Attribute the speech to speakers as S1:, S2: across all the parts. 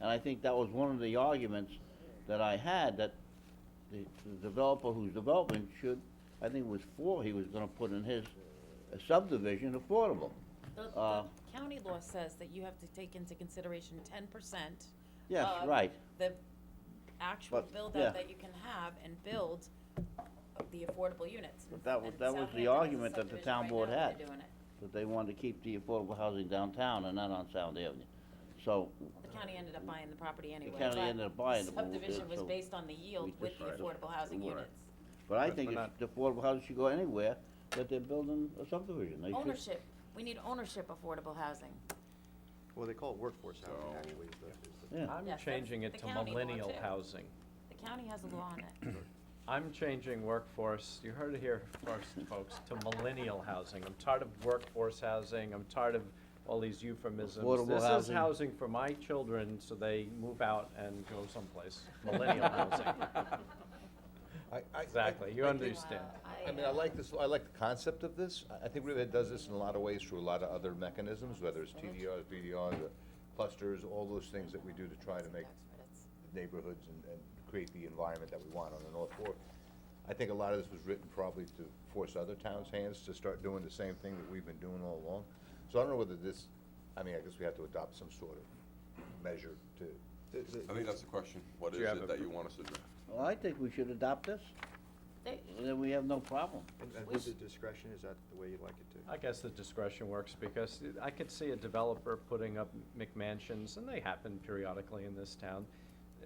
S1: And I think that was one of the arguments that I had, that the the developer who's developing should, I think it was four he was gonna put in his uh, subdivision affordable.
S2: The, the
S1: Uh,
S2: county law says that you have to take into consideration ten percent.
S1: Yes,
S2: Uh,
S1: right.
S2: The actual
S1: But, yeah.
S2: build-out that you can have and build the affordable units.
S1: But that was-
S2: And
S1: that was the
S2: Southampton has a
S1: argument that the
S2: subdivision
S1: town
S2: right
S1: board
S2: now where
S1: had.
S2: they're doing it.
S1: But they wanted to keep the affordable housing downtown and not on Sound Avenue. So,
S2: The county ended up buying the property anyway.
S1: county
S2: but
S1: ended up buying it, but we
S2: Subdivision
S1: did,
S2: was
S1: so
S2: based on the yield
S1: we
S2: with the
S1: decided
S2: affordable housing
S1: we
S2: units.
S1: weren't. but I
S3: But
S1: think
S3: we're
S1: it's- the affordable housing should go anywhere that they're building a subdivision. They should-
S2: Ownership, we need ownership affordable housing.
S4: Well, they call it workforce
S3: Oh.
S4: housing, actually, is the- is the-
S1: Yeah.
S3: I'm
S2: Yes, that's
S3: changing
S2: the
S3: it to
S2: county law,
S3: millennial
S2: too.
S3: housing.
S2: The county has a law on it.
S3: I'm changing workforce, you heard it here first, folks, to millennial housing. I'm tired of workforce housing, I'm tired of all these euphemisms.
S1: Affordable
S3: This is
S1: housing.
S3: housing for my children, so they move out and go someplace, millennial housing.
S5: I- I- I-
S3: Exactly, you
S5: I-
S3: understand.
S5: I
S2: uh,
S5: mean, I like this, I like the concept of this. I- I think Riverhead does this in a lot of ways through a lot of other mechanisms, whether it's TDRs, BDRs, or uh, clusters, all those things that we do to try to make neighborhoods and, and create the environment that we want on the North Fork. I think a lot of this was written probably to force other towns' hands to start doing the same thing that we've been doing all along. So I don't know whether this, I mean, I guess we have to adopt some sort of measure to.
S6: I think that's the question. What
S3: Do
S6: is
S3: you have a
S6: it that
S3: pr-
S6: you want us to draft?
S1: Well, I think we should adopt this,
S2: They,
S1: and then we have no problem.
S4: and- and with the discretion, is that the way you'd like it to?
S3: I guess the discretion works because I could see a developer putting up McMansions, and they happen periodically in this town,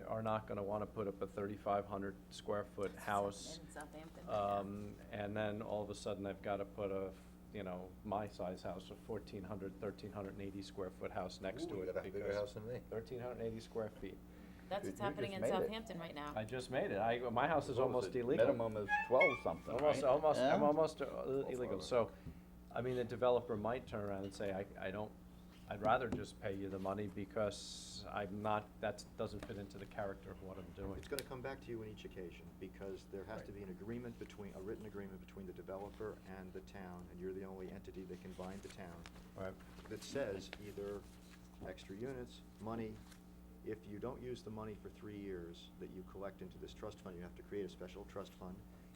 S3: are not gonna wanna put up a thirty-five hundred square foot house.
S2: In Southampton.
S3: Um, and then all of a sudden they've gotta put a, you know, my size house, a fourteen hundred, thirteen hundred and eighty square foot house next to
S5: Ooh,
S3: it
S5: you got a bigger house than me.
S3: Thirteen hundred and eighty square feet.
S2: That's what's
S5: you
S2: happening
S5: just
S2: in
S5: made it.
S2: Southampton right now.
S3: I just made it. I, my house is almost illegal.
S1: is twelve something,
S3: Almost, almost, I'm
S1: Yeah.
S3: almost uh, illegal, so, I mean, the developer might turn around and say, I, I don't, I'd rather just pay you the money because I'm not, that doesn't fit into the character of what I'm doing.
S4: It's gonna come back to you on each occasion, because there has to be an agreement between, a written agreement between the developer and the town, and you're the only entity that can bind the town,
S3: Right.
S4: that says either extra units, money, if you don't use the money for three years that you collect into this trust fund, you have to create a special trust fund,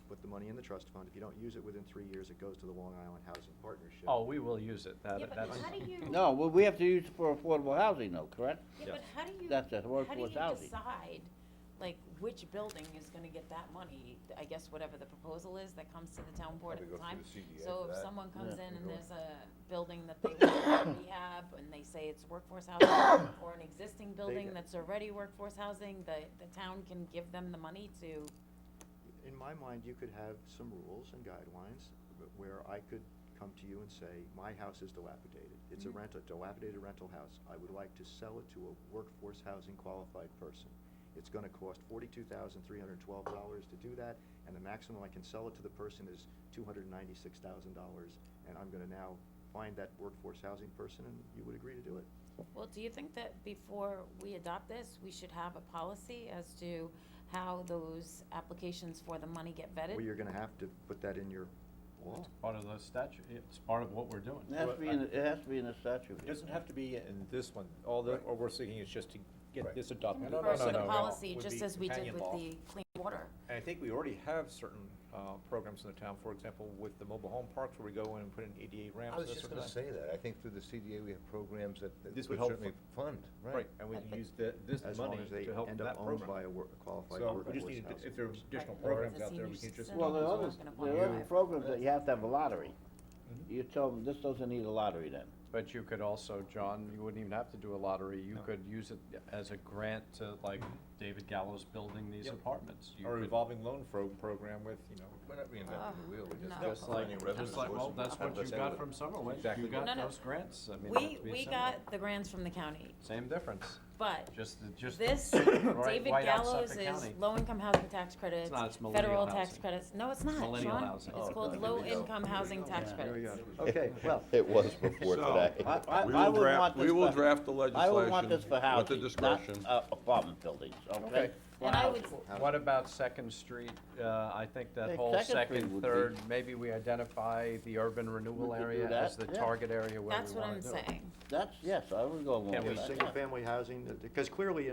S4: put the money in the trust fund, if you don't use it within three years, it goes to the Long Island Housing Partnership.
S3: Oh, we will use it, that,
S2: Yeah, but
S3: that's.
S2: how do you-
S1: No, well, we have to use it for affordable housing though, correct?
S2: Yeah, but
S3: Yes.
S2: how do you,
S1: That's it,
S2: how do you
S1: workforce housing.
S2: decide, like, which building is gonna get that money? I guess whatever the proposal is that comes to the town board at
S5: Probably
S2: the
S5: go through
S2: time.
S5: the CDA
S2: So
S5: for
S2: if
S5: that.
S2: someone comes
S1: Yeah.
S2: in and there's a building that they want to rehab, and they say it's workforce housing, or an existing building that's already workforce housing, the, the town can give them the money to,
S4: in my mind, you could have some rules and guidelines wh- where I could come to you and say, my house is dilapidated. It's a rental, dilapidated rental house. I would like to sell it to a workforce housing qualified person. It's gonna cost forty-two thousand, three hundred and twelve dollars to do that, and the maximum I can sell it to the person is two hundred and ninety-six thousand dollars. And I'm gonna now find that workforce housing person, and you would agree to do it.
S2: Well, do you think that before we adopt this, we should have a policy as to how those applications for the money get vetted?
S4: Well, you're gonna have to put that in your law.
S3: It's part of the statute, it's part of what we're doing.
S1: It has to be in, it has to be in the statute.
S7: It doesn't have to be in this one, all that, all we're seeking is just to get
S5: Right.
S7: this adopted.
S3: No, no,
S2: Refer
S3: no,
S2: to the
S3: no, no.
S2: policy,
S7: Would
S2: just
S7: be
S2: as we did
S7: companion
S2: with
S7: law.
S2: the clean water.
S7: And I think we already have certain, uh, programs in the town, for example, with the mobile home parks where we go in and put in eighty-eight ramps.
S5: I was
S7: that
S5: just
S7: sort of
S5: gonna
S7: thing.
S5: say that. I think through the CDA, we have programs that that
S7: This would
S5: would
S7: help
S5: certainly fund, right?
S7: Right, and we
S2: But-
S7: can use the, this
S4: As long
S7: money
S4: as they
S7: to help
S4: end
S7: that
S4: up owned by
S7: program.
S4: a wor- a qualified
S7: So we
S4: workforce
S7: just need, to-
S4: housing
S7: if there are
S4: person.
S7: additional
S2: Right.
S7: programs
S2: The
S7: out there,
S2: senior
S7: we can just.
S2: citizen.
S1: Well, there are
S2: Someone's
S1: others,
S2: not gonna
S1: there are
S2: want
S1: other
S2: it.
S1: programs that you have to have a lottery. You tell them, this doesn't need a lottery then.
S3: But you could also, John, you wouldn't even have to do a lottery, you could use it as a grant to, like, David Gallo's building these
S7: Yep.
S3: apartments. You
S7: Or
S3: could-
S7: revolving loan fro- program with, you know,
S5: We're not reinventing the wheel, we're
S2: no.
S5: just
S3: Just like,
S5: finding revenue
S3: just like, well,
S5: sources.
S3: that's what you got from Summerway,
S7: Exactly.
S3: you got
S2: No, no.
S3: those grants, I mean,
S2: We,
S3: it'd be
S2: we
S3: similar.
S2: got the grants from the county,
S3: Same difference,
S2: but
S3: just, the- just.
S2: this,
S3: right-
S2: David
S3: right outside
S2: Gallows
S3: the
S2: is
S3: county.
S2: low-income housing tax credits,
S3: not, it's millennial
S2: federal tax
S3: housing.
S2: credits. No, it's not,
S3: Millennial
S2: Sean.
S3: housing.
S2: It's
S3: Oh,
S2: called
S5: there we go.
S2: low-income housing tax
S1: Yeah.
S2: credits.
S4: Okay, well,
S5: It was before
S6: So-
S1: I, I,
S6: We
S1: I
S6: will
S1: would
S6: draft-
S1: want this
S6: we will
S1: for-
S6: draft the
S1: I would want
S6: legislation
S1: this for
S6: with the
S1: housing, not
S6: discretion.
S1: uh, apartment buildings, okay?
S3: Okay.
S1: For
S2: And I
S1: housing.
S2: would,
S3: What about Second Street, uh, I think
S1: Hey,
S3: that whole
S1: Second Street would be-
S3: second, third, maybe we identify the urban renewal
S1: We could do
S3: area as the
S1: that, yeah.
S3: target area where we wanna do
S2: that's what I'm
S3: it.
S2: saying.
S1: That's, yes, I would go along with
S3: Can we
S1: that. yeah.
S4: single-family housing, because clearly